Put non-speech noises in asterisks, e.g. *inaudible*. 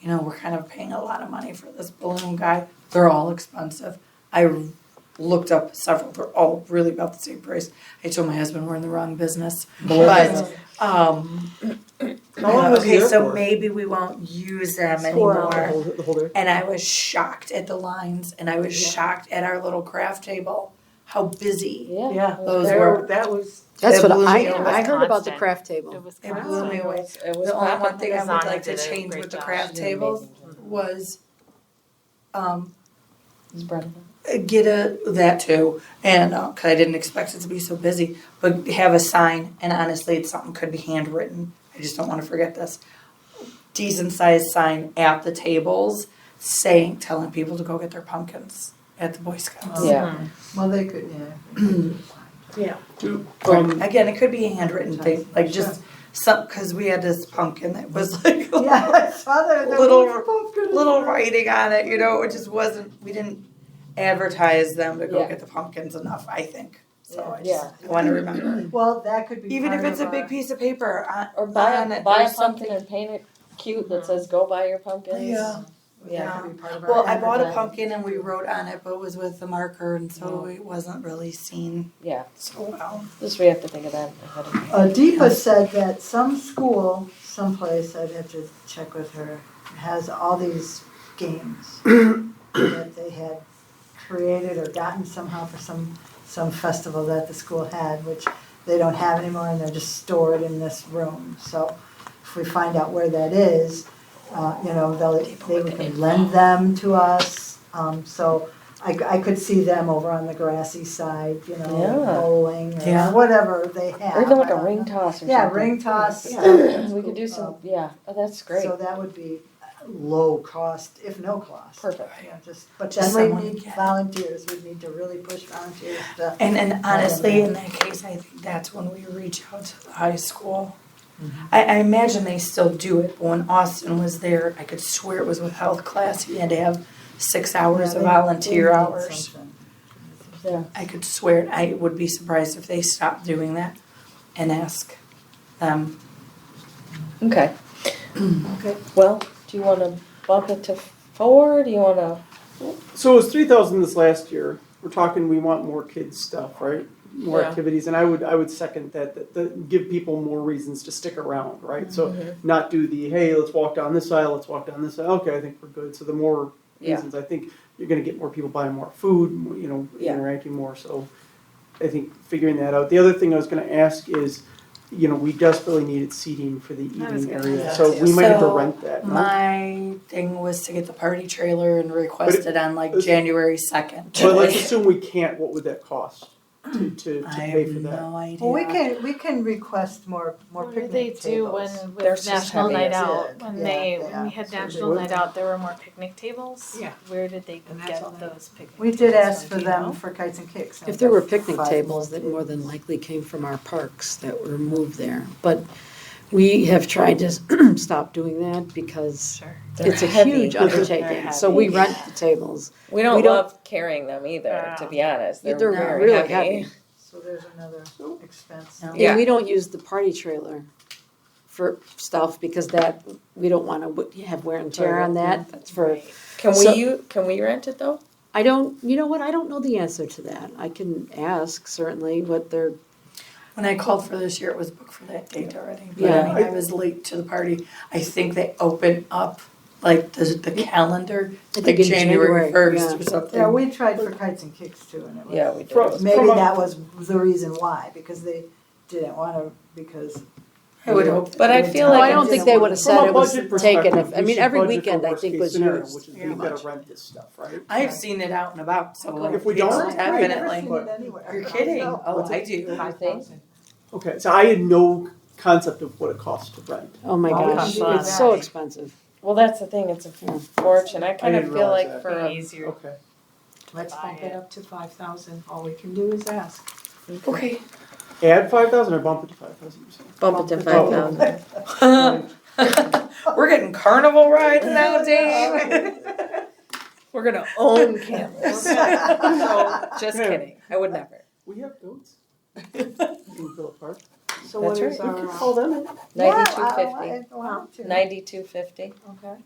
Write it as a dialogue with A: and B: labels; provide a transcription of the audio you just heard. A: you know, we're kind of paying a lot of money for this balloon guy. They're all expensive. I looked up several, they're all really about the same price. I told my husband we're in the wrong business, but, um, uh,
B: How long was he
A: okay,
B: there
A: so
B: for?
A: maybe we won't use them
C: Four
A: anymore.
B: The whole- the whole day?
A: And I was shocked at the lines and I was
C: Yeah.
A: shocked at our little craft table, how busy
C: Yeah.
B: Yeah,
A: those
B: there-
A: were.
B: That was,
D: That's
A: It
D: what
A: blew me
D: I,
A: away.
D: I heard about the
E: Constant.
D: craft
E: It
D: table.
E: was
A: It blew me
E: constant.
A: away.
C: It was
A: The only
C: crap.
A: one thing I would
E: Designer
A: like to
E: did a
A: change
E: great
A: with the
E: job.
A: craft
C: She did an
A: tables
C: amazing job.
A: was, um,
C: It's Brenda.
A: get a, that too, and, uh 'cause cause I didn't expect it to be so busy, but have a sign, and honestly, it's something could be handwritten, I just don't wanna forget this. Decent sized sign at the tables saying, telling people to go get their pumpkins at the Boy Scouts.
C: Yeah.
F: Well, they could, yeah.
B: um,
A: Again, it could be a handwritten thing, like just some, cause we had this pumpkin that was *laughs* like
F: *laughs* Yeah, I saw that. that
A: Little-
F: was pumpkin.
A: little writing on it, you know, it just wasn't, we didn't advertise them to go
C: Yeah.
A: get the pumpkins enough, I think. So I
C: Yeah.
A: just wanna remember. it.
F: Well, that could be.
A: Even if
F: part
A: it's a
F: of
A: big
F: our-
A: piece of paper, uh,
C: Or buy
A: on
C: a,
A: it,
C: buy a
A: there's
C: pumpkin and paint it cute that says, go buy your pumpkins.
A: Yeah.
F: That could be part of our.
A: Well, I bought a
F: advertising.
A: pumpkin and we wrote on it, but it was with the marker and so it wasn't really seen
C: Yeah,
A: so well.
C: just we have to think of that ahead of time.
A: Oh,
F: Uh, Deepa said that some school, someplace, I'd have to check with her, has all these games that they had created or gotten somehow for some, some festival that the school had, which they don't have anymore and they're just stored in this room. So if we find out where that is, uh, you know, they'll, they can lend them to us. Um, so I, I could see them over on the grassy side, you know,
C: Yeah.
F: bowling
A: Yeah.
F: or whatever they have.
C: Or even like
F: I
C: a
F: don't know.
C: ring toss or something.
F: Yeah, ring toss.
C: Yeah.
F: stuff.
C: We could do some, yeah, oh, that's
F: Um,
C: great,
F: So that would be low cost, if no cost.
C: perfect.
F: Yeah, just, but
A: Just
F: then we
A: someone
F: need
A: get-
F: volunteers, we need to really push volunteers to.
A: And and honestly, in that case, I think that's when we reach out to the high school.
F: Mm-hmm.
A: I, I imagine they still do it, but when Austin was there, I could swear it was with health class, he had to have six hours
F: Yeah,
A: of
F: they-
A: volunteer
F: they need
A: hours.
F: something.
A: I could swear, it. I would be surprised if they stopped doing that and ask them.
C: Okay.
F: Okay.
C: Well, do you wanna bump it to four, do you wanna,
B: so it was three thousand this last year. We're talking, we want more kids stuff, right? More
C: Yeah.
B: activities, and I would, I would second that, that, that give people more reasons to stick around, right? So
C: Mm-hmm.
B: not do the, hey, let's walk down this aisle, let's walk down this aisle, okay, I think we're good. So the more
C: Yeah.
B: reasons, I think you're gonna get more people buying more food, more, you know,
C: Yeah.
B: interacting more, so I think figuring that out. The other thing I was gonna ask is, you know, we desperately needed seating for the evening area,
F: that
B: so
F: too.
B: we might have to
A: So,
B: rent that. no?
A: My thing was to get the party trailer and request
B: But
A: it on like
B: it's-
A: January second.
B: But
A: *laughs*
B: let's assume we can't, what would that cost to, to, to
A: I
B: pay
A: have
B: for that?
A: no idea.
F: Well, we can, we can request more, more
E: What did
F: picnic
E: they
F: tables.
E: do when
C: They're
E: with
C: so
E: National
C: heavy.
E: Night
F: Yeah,
E: Out, when
F: yeah,
E: they,
F: they
E: when we
F: are.
E: had
B: So they
E: National
B: would.
E: Night Out, there were more picnic tables?
F: Yeah.
E: Where did they
F: And that's
E: get
F: all they-
E: those picnic?
F: We did
E: tables
F: ask
E: from?
F: for
E: Do you
F: them
E: know?
F: for kites and kicks.
D: If there were picnic
F: Five
D: tables that more than likely came from our parks that were moved there, but we have tried to *clears throat* stop doing that because
E: Sure.
D: it's a
C: They're heavy.
D: huge undertaking, so we
C: heavy.
D: rent the tables.
C: we don't
D: We don't-
C: love carrying them either, to be honest, they're
D: They're
C: very
D: really
C: heavy.
F: So there's another expense.
A: No.
C: Yeah.
D: And we don't use the party trailer for stuff because that, we don't wanna w- have wear and tear on that, that's for,
E: Right.
C: Can
D: So-
C: we, u- can we rent it though?
D: I don't, you know what, I don't know the answer to that. I can ask certainly what they're,
A: When I called for this year, it was booked for that date already, but
D: Yeah.
A: I mean, I was late to the party. I think they open up like the, the calendar,
D: I
A: like
D: think in
A: January
D: January,
A: first
D: yeah.
A: or
F: Yeah,
A: something.
F: we tried for kites and kicks too, and it was.
C: Yeah, we do.
B: From-
F: Maybe
B: from a-
F: that was the reason why, because they didn't wanna, because.
A: I would hope. that
C: But
A: they
C: I
A: would
C: feel
A: tell
C: like
D: Well, I
A: me.
D: don't
C: it's-
D: think they would've
B: From
D: said
B: a
D: it was
B: budget
D: taken,
B: perspective,
D: if- I
B: we
D: mean,
B: should
D: every
B: budget
D: weekend
B: for
D: I think
B: worst-case
D: was
B: scenario,
D: used,
B: Which is
A: pretty
B: we've gotta
D: much.
B: rent this stuff, right?
A: I've seen it out and about, so like.
B: If we
A: it's
B: don't,
F: I've never seen
A: Definitely.
F: it anywhere.
A: You're kidding.
F: No.
A: Oh, I do.
C: I think.
B: Okay, so I had no concept of what it costs to rent.
D: oh my
F: Well, we
D: gosh,
F: should do
D: it's so
F: that.
D: expensive.
C: Well, that's the thing, it's a
D: Yeah.
C: fortune, I kind
B: I
C: of
B: didn't
C: feel
B: realize
C: like
B: that.
C: for
E: Be
C: a
E: easier.
B: Okay.
F: Let's
E: buy
F: bump
E: it.
F: it up to five thousand, all we can do is ask.
A: Okay.
B: Add five thousand or bump it to five thousand, you said?
C: Bump it to
B: Oh.
C: five thousand. *laughs*
A: We're getting carnival rides now, Dave.
C: We're gonna own
F: *laughs*
C: cameras. No, Just
B: Yeah.
C: kidding, I would never.
B: We have
D: *laughs*
B: goats. In Phillip Park.
F: So
C: That's
F: what is
B: We
F: our?
B: could call them.
C: Ninety-two
F: Yeah, I- I-
C: fifty.
F: I want to.
C: Ninety-two fifty.
F: Okay.